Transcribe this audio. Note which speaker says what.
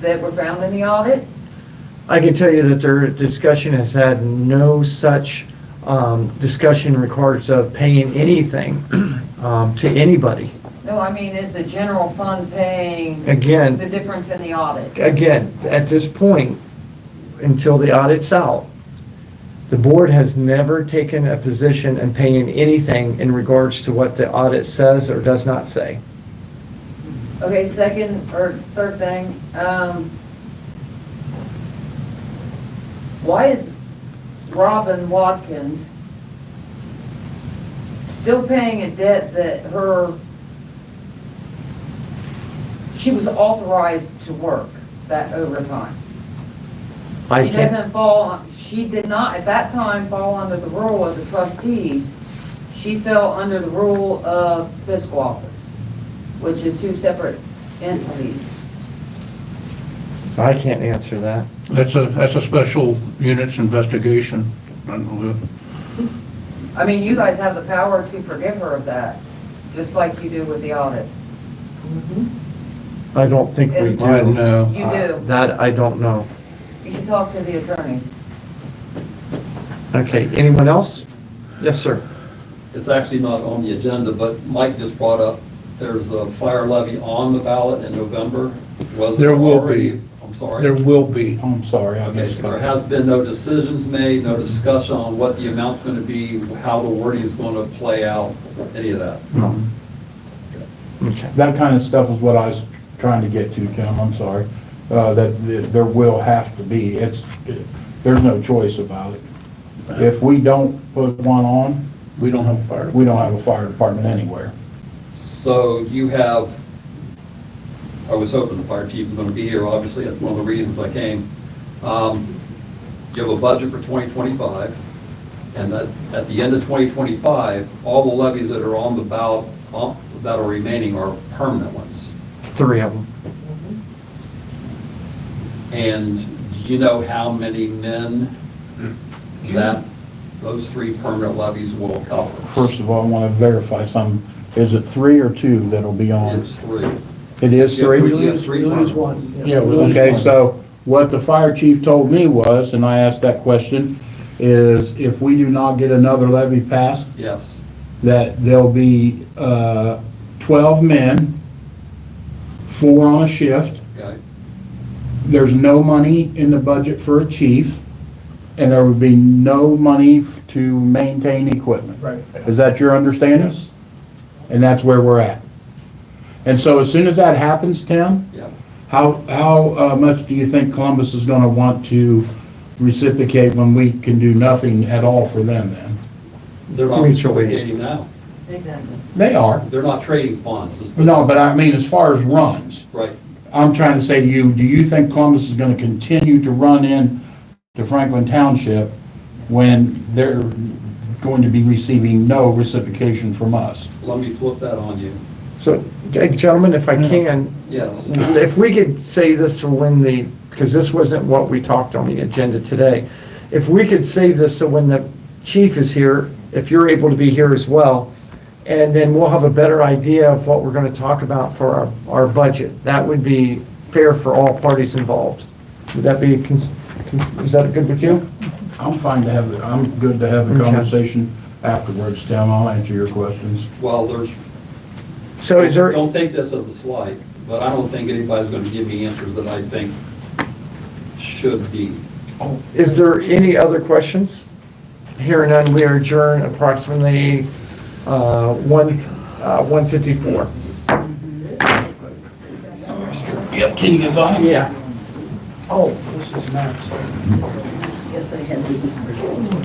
Speaker 1: that were found in the audit?
Speaker 2: I can tell you that their discussion has had no such um, discussion regards of paying anything um, to anybody.
Speaker 1: No, I mean, is the general fund paying the
Speaker 2: Again,
Speaker 1: difference in the audit?
Speaker 2: again, at this point, until the audit's out, the board has never taken a position in paying anything in regards to what the audit says or does not say.
Speaker 1: Okay, second or third thing, um, why is Robin Watkins still paying a debt that her, she was authorized to work that overtime?
Speaker 2: I
Speaker 1: She
Speaker 2: can't-
Speaker 1: doesn't fall, she did not, at that time, fall under the rule as a trustee. She fell under the rule of fiscal office, which is two separate entities.
Speaker 2: I can't answer that.
Speaker 3: That's a, that's a special units investigation. And we-
Speaker 1: I mean, you guys have the power to forgive her of that, just like you do with the audit.
Speaker 2: I don't think we
Speaker 1: And-
Speaker 2: do.
Speaker 3: I know.
Speaker 1: You do.
Speaker 2: That I don't know.
Speaker 1: You should talk to the attorneys.
Speaker 2: Okay, anyone else? Yes, sir.
Speaker 4: It's actually not on the agenda, but Mike just brought up, there's a fire levy on the ballot in November. Was it
Speaker 3: There will
Speaker 4: already-
Speaker 3: be.
Speaker 4: I'm sorry.
Speaker 3: There will be.
Speaker 5: I'm sorry, I
Speaker 4: Okay, so
Speaker 5: missed
Speaker 4: there
Speaker 5: that.
Speaker 4: has been no decisions made, no discussion on what the amount's going to be, how the wording is going to play out, any of that.
Speaker 2: Okay.
Speaker 5: That kind of stuff is what I was trying to get to, Jim, I'm sorry. Uh, That that there will have to be, it's, there's no choice about it. If we don't put one on,
Speaker 3: We don't have a fire.
Speaker 5: we don't have a fire department anywhere.
Speaker 4: So you have, I was hoping the fire chief was going to be here, obviously, that's one of the reasons I came. Um, You have a budget for 2025, and that, at the end of 2025, all the levies that are on the ballot, on- that are remaining are permanent ones.
Speaker 2: Three of them.
Speaker 4: And do you know how many men that, those three permanent levies will cover?
Speaker 5: First of all, I want to verify some, is it three or two that'll be on?
Speaker 4: It's three.
Speaker 5: It is three?
Speaker 4: You have three permanent ones.
Speaker 3: Yeah, we lose
Speaker 5: Okay,
Speaker 3: one.
Speaker 5: so what the fire chief told me was, and I asked that question, is if we do not get another levy passed,
Speaker 4: Yes,
Speaker 5: that there'll be uh, 12 men, four on a shift.
Speaker 4: okay,
Speaker 5: There's no money in the budget for a chief, and there would be no money f- to maintain equipment.
Speaker 6: Right.
Speaker 5: Is that your understanding? And that's where we're at. And so as soon as that happens, Tim,
Speaker 4: yeah.
Speaker 5: how, how uh, much do you think Columbus is going to want to reciprocate when we can do nothing at all for them then?
Speaker 4: They're not
Speaker 2: Mutually.
Speaker 4: trading now.
Speaker 1: Exactly.
Speaker 5: They are.
Speaker 4: They're not trading funds. is-
Speaker 5: No, but I mean, as far as runs.
Speaker 4: Right.
Speaker 5: I'm trying to say to you, do you think Columbus is going to continue to run in to Franklin Township when they're going to be receiving no reciprocation from us?
Speaker 4: Let me flip that on you.
Speaker 2: So, g- gentlemen, if I can,
Speaker 4: Yes.
Speaker 2: if we could say this to when the, because this wasn't what we talked on the agenda today. If we could save this so when the chief is here, if you're able to be here as well, and then we'll have a better idea of what we're going to talk about for our, our budget. That would be fair for all parties involved. Would that be, cons- cons- is that good with you?
Speaker 5: I'm fine to have, the- I'm good to have the
Speaker 2: Okay.
Speaker 5: conversation afterwards, Tim. I'll answer your questions.
Speaker 4: Well, there's,
Speaker 2: So is there?
Speaker 4: don't take this as a slight, but I don't think anybody's going to give me answers that I think should be.
Speaker 2: Oh, Is there any other questions? Hearing none, we adjourn approximately uh, one uh, 1:54.
Speaker 3: Yep, can you get by?
Speaker 2: Yeah. Oh.
Speaker 6: This is Max.
Speaker 1: Yes, I had